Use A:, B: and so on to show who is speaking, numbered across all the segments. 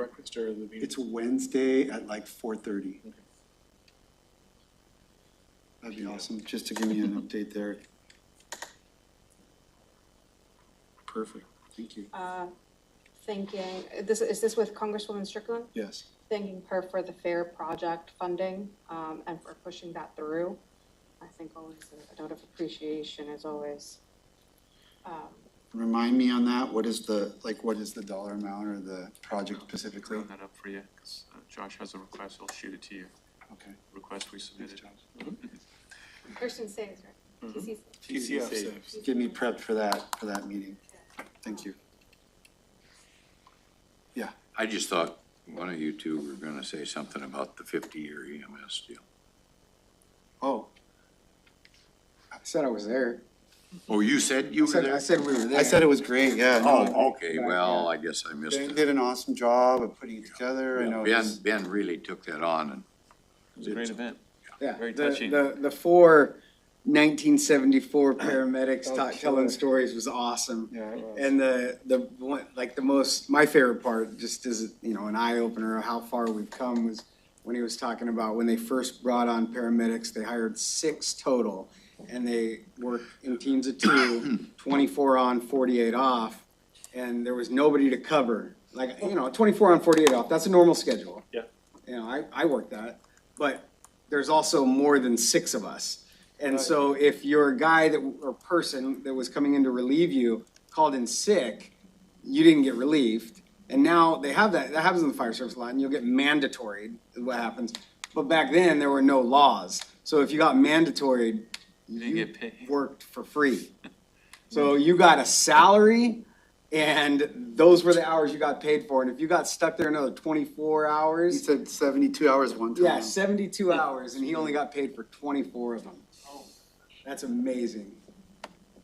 A: breakfast or the meeting?
B: It's Wednesday at like four thirty.
A: Okay.
B: That'd be awesome, just to give you an update there.
A: Perfect.
B: Thank you.
C: uh, thanking, this, is this with Congresswoman Strickland?
B: Yes.
C: Thanking her for the fair project funding, um, and for pushing that through. I think always a note of appreciation is always, um,
B: Remind me on that, what is the, like, what is the dollar amount or the project specifically?
D: Clean that up for you, because Josh has a request, he'll shoot it to you,
B: Okay.
D: request we submitted.
C: Kirsten Sayers, right? TCC.
A: TCF saves.
B: Get me prepped for that, for that meeting. Thank you.
E: I just thought one of you two were gonna say something about the fifty-year EMS deal.
B: Oh. I said I was there.
E: Oh, you said you
B: I
E: were
B: said, I
E: there?
B: said we were there. I said it was great, yeah. no.
E: Oh, okay, well, I guess I missed
B: They
E: it.
B: did an awesome job of putting it together, I know. it
E: Ben,
B: was-
E: Ben really took that on and
A: It was a great event.
F: Yeah,
D: Very
F: the-
D: touching.
F: The, the four 1974 paramedics
B: Oh,
F: ta-
B: killer.
F: telling stories was awesome.
B: Yeah, it was.
F: Oh, And the, the one, like the most, my favorite part, just as, you know, an eye opener of how far we've come was when he was talking about when they first brought on paramedics, they hired six total. And they worked in teams of two, 24 on, 48 off, and there was nobody to cover. Like, you know, 24 on, 48 off, that's a normal schedule.
A: Yeah.
F: You know, I, I work that, but there's also more than six of us. And so if your guy that, or person that was coming in to relieve you called in sick, you didn't get relieved. And now they have that, that happens in the fire service a lot, and you'll get mandatory, is what happens. But back then, there were no laws. So if you got mandatory,
D: didn't
F: you
D: get paid.
F: worked for free. So you got a salary, and those were the hours you got paid for. And if you got stuck there another twenty-four
B: He
F: hours,
B: said seventy-two hours one time.
F: yeah, seventy-two hours, and he only got paid for twenty-four of them. That's amazing.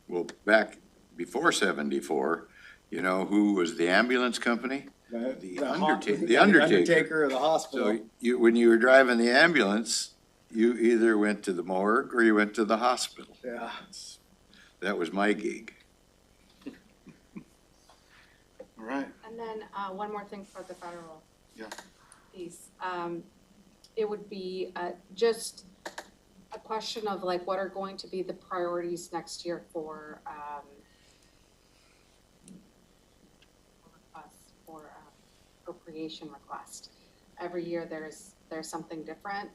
E: well, back before seventy-four, you know, who was the ambulance company?
F: The
E: Undertaker-
F: hos-
E: the
F: yeah,
E: Undertaker.
F: Undertaker of the hospital.
E: So you, when you were driving the ambulance, you either went to the morgue or you went to the hospital.
F: Yeah.
E: That was my gig.
A: All right.
C: And then, uh, one more thing for the federal.
A: Yeah.
C: Piece, um, it would be, uh, just a question of like, what are going to be the priorities next year for, um, requests for uh, appropriation request. Every year there's, there's something different.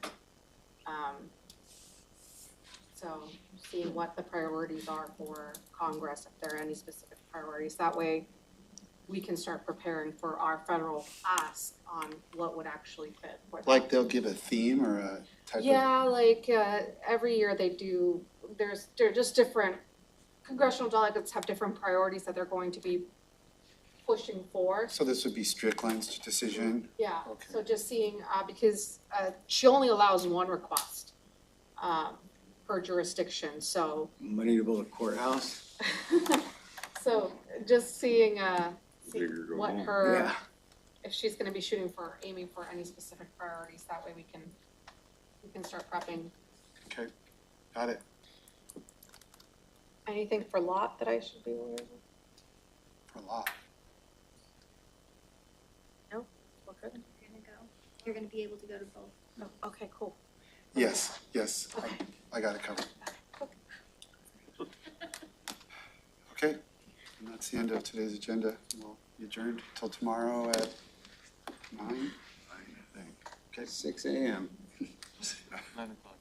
C: Um, so see what the priorities are for Congress, if there are any specific priorities. That way, we can start preparing for our federal ask on what would actually fit. for that.
B: Like they'll give a theme or a type of.
C: Yeah, like, uh, every year they do, there's, they're just different, congressional delegates have different priorities that they're going to be pushing for.
B: So this would be Strickland's decision?
C: Yeah,
B: Okay.
C: so just seeing, uh, because, uh, she only allows one request, um, per jurisdiction, so,
F: Money to build a courthouse.
C: so just seeing, uh, see
E: Bigger go
C: what
E: home.
C: her, if she's gonna be shooting for, aiming for any specific priorities, that way we can, we can start prepping.
B: Okay, got it.
C: Anything for lot that I should be aware of?
B: For a lot.
C: We're good?
G: You're gonna go. You're gonna be able to go to both.
C: No, okay, cool.
B: Yes, yes, I-
C: Okay.
B: I got it covered. Okay, and that's the end of today's agenda. We'll be adjourned till tomorrow at nine.
E: I think.
F: Six AM.
D: Nine o'clock.